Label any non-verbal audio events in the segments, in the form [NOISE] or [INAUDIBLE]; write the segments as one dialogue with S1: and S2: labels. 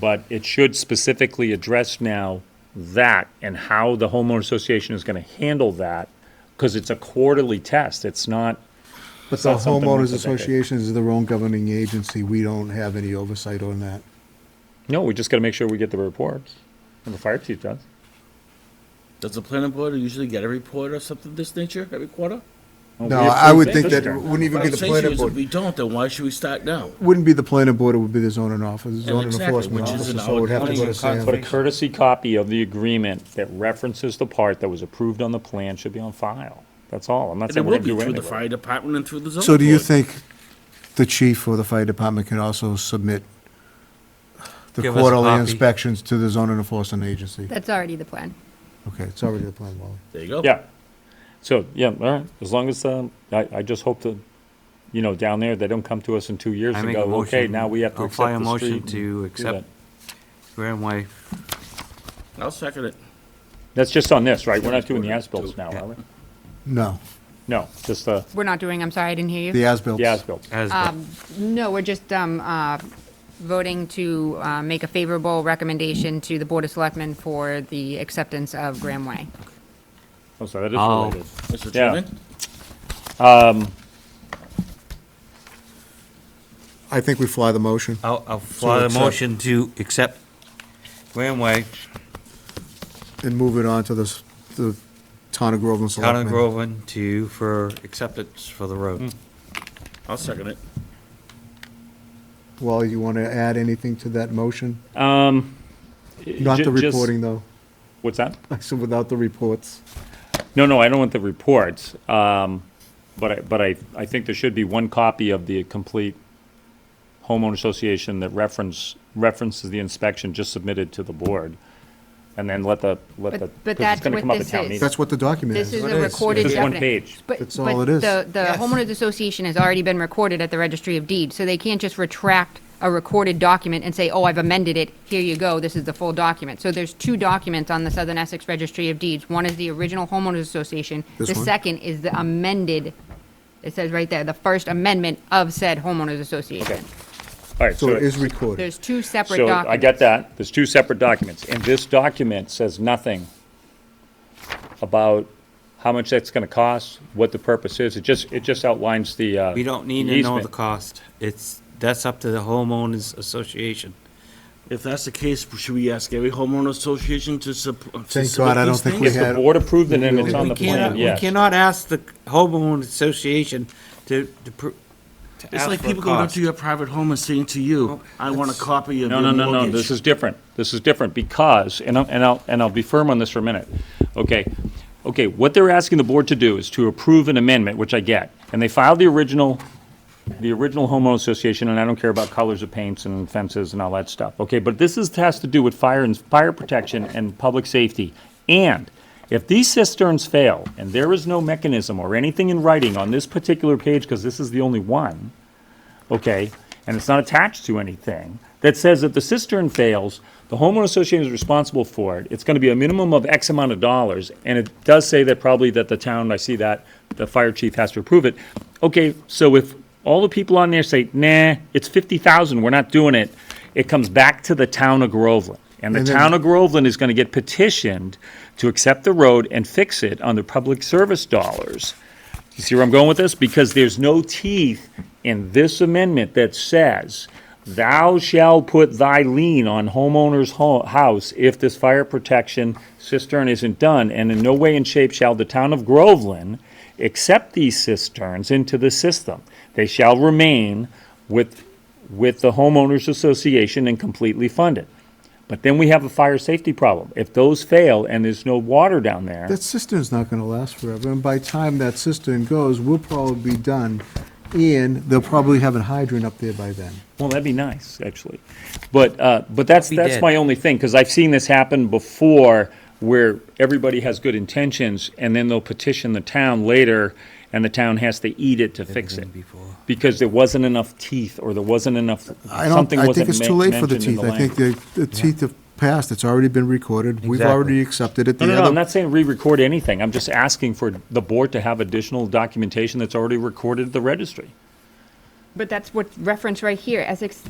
S1: But it should specifically address now that and how the homeowner association is going to handle that, because it's a quarterly test. It's not,
S2: But the
S1: not something we
S2: homeowners
S1: could-
S2: association is their own governing agency. We don't have any oversight on that.
S1: no, we just got to make sure we get the reports, and the fire chief does.
S3: Does the planning board usually get a report or something of this nature every quarter?
S1: Well,
S2: No,
S1: we
S2: I would
S1: approved
S2: think that
S1: this
S2: it
S1: term.
S2: wouldn't even
S3: What
S2: be
S3: I'm
S2: the
S3: saying to you
S2: planning
S3: is If
S2: board.
S3: we don't, then why should we start now?
S2: Wouldn't be the planning board, it would be the zoning office, zoning
S3: exactly,
S2: enforcement
S3: which is
S2: officer,
S3: an
S2: so it would have to go
S1: But
S2: to
S3: outlying
S1: a
S2: Sam.
S3: conservation-
S1: courtesy copy of the agreement that references the part that was approved on the plan should be on file. That's all. I'm not
S3: And it
S1: saying
S3: will
S1: we're going
S3: be
S1: to do
S3: through
S1: anything.
S3: the
S1: with it.
S3: fire department and through the zoning
S2: So do you
S3: board.
S2: think the chief or the fire department can also submit the
S4: Give us a
S2: quarterly
S4: copy.
S2: inspections to the zoning enforcement agency?
S5: That's already the plan.
S2: Okay, it's already the planning board.
S3: There you go.
S1: Yeah. So, yeah, all right. As long as, um, I, I just hope that, you know, down there, they don't come to us in two years
S4: I
S1: and
S4: make a
S1: go, okay,
S4: motion-
S1: now we have to
S4: I'll
S1: accept the street.
S4: file a motion
S1: and
S4: to
S1: do
S4: accept-
S1: that."
S4: Graham Way.
S3: I'll second it.
S1: That's just on this, right? We're not doing the as-bills now, are we?
S2: No,
S1: No, just the,
S5: We're not doing, I'm sorry, I didn't hear
S2: the
S5: you.
S2: as-built.
S1: the as-bills.
S4: as
S5: No, we're just um, uh, voting to uh, make a favorable recommendation to the Board of Selectmen for the acceptance of Graham Way.
S1: Oh, sorry, that
S4: I'll-
S1: is related.
S3: Mr.
S1: Yeah.
S3: Chairman?
S2: I think we fly the motion.
S4: I'll, I'll file a
S2: accept-
S4: motion to accept Graham Way,
S2: and move it on to the, s- the town of Groveland
S4: Town of
S2: Selectmen.
S4: Groveland to, for acceptance for the
S1: Hmm.
S4: road.
S3: I'll second it.
S2: Wally, you want to add anything to that motion? Not
S1: Ju-
S2: the
S1: just-
S2: reporting, though. [LAUGHS]
S1: What's that?
S2: I said without the reports.
S1: No, no, I don't want the reports, um, but I, but I, I think there should be one copy of the complete homeowner association that reference, references the inspection just submitted to the board, and then let the, let
S5: But-
S1: the.
S5: but
S1: 'cause
S5: that's
S1: It's gonna
S5: what
S1: come up at
S5: this
S1: town
S5: is.
S1: meeting.
S2: That's what the document is.
S5: This is
S2: It
S5: a recorded
S1: Just one
S5: definite-
S1: page.
S5: but-
S2: That's all it is.
S5: But the, the homeowners association has already been recorded at the registry of deeds, so they can't just retract a recorded document and say, oh, I've amended it, here you go, this is the full document. So there's two documents on the Southern Essex Registry of Deeds. One is the original homeowners association.
S2: This
S5: The
S2: one?
S5: second is the amended, it says right there, the first amendment of said homeowners
S1: Okay.
S5: association.
S1: All right,
S2: So it is
S1: so,
S2: recorded.
S5: There's two separate
S1: so
S5: documents.
S1: I get that, there's two separate documents, and this document says nothing about how much that's gonna cost, what the purpose is, it just, it just outlines the, uh.
S4: We don't need
S1: the
S4: to know
S1: easement.
S4: the cost. It's, that's up to the homeowners association.
S3: If that's the case, should we ask every homeowner association to sup- to submit
S2: Thank God I don't
S3: these
S2: think we
S3: things?
S2: have-
S1: The
S2: had-
S1: board approved it and
S2: We
S1: it's on
S4: We
S1: the
S4: cannot,
S1: plan,
S4: we
S1: yes.
S4: cannot ask the homeowners association to, to pr- to
S3: It's
S4: ask
S3: like
S4: for a
S3: people going up
S4: cost.
S3: to your private home and saying to you,
S4: Oh,
S3: I want a
S4: that's-
S3: copy of
S1: No,
S3: your
S1: no,
S3: mortgage.
S1: no, no, this is different. This is different because, and I'll, and I'll, and I'll be firm on this for a minute. Okay, okay, what they're asking the board to do is to approve an amendment, which I get. And they filed the original, the original homeowner association, and I don't care about colors of paints and fences and all that stuff. Okay, but this is, has to do with fire and, fire protection and public safety. And if these cisterns fail and there is no mechanism or anything in writing on this particular page, because this is the only one, okay, and it's not attached to anything, that says if the cistern fails, the homeowner association is responsible for it. It's gonna be a minimum of X amount of dollars, and it does say that probably that the town, I see that, the fire chief has to approve it. Okay, so if all the people on there say, nah, it's fifty thousand, we're not doing it, it comes back to the town of Groveland. And the
S2: And then-
S1: town of Groveland is gonna get petitioned to accept the road and fix it on their public service dollars. You see where I'm going with this? Because there's no teeth in this amendment that says, thou shalt put thy lien on homeowner's ho- house if this fire protection cistern isn't done, and in no way and shape shall the town of Groveland accept these cisterns into the system. They shall remain with, with the homeowners association and completely funded. But then we have a fire safety problem. If those fail and there's no water down there.
S2: That cistern's not going to last forever, and by time that cistern goes, we'll probably be done, and they'll probably have a hydrant up there by then.
S1: Well, that'd be nice, actually. But, uh, but that's,
S4: That'd be
S1: that's
S4: dead.
S1: my only thing, because I've seen this happen before where everybody has good intentions and then they'll petition the town later and the town has to eat it to fix it.
S4: Everything before.
S1: Because there wasn't enough teeth or there wasn't enough,
S2: I don't,
S1: something
S2: I
S1: wasn't
S2: think it's too
S1: ma-
S2: late for the
S1: mentioned in
S2: teeth.
S1: the
S2: I think
S1: language.
S2: the, the teeth have passed. It's already been recorded. We've
S4: Exactly.
S2: already accepted it.
S1: No,
S2: The
S1: no, no,
S2: other-
S1: I'm not saying re-record anything. I'm just asking for the board to have additional documentation that's already recorded at the registry.
S5: But that's what's referenced right here, Essex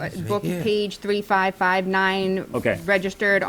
S5: uh, book page 3559.
S4: Okay.
S5: Registered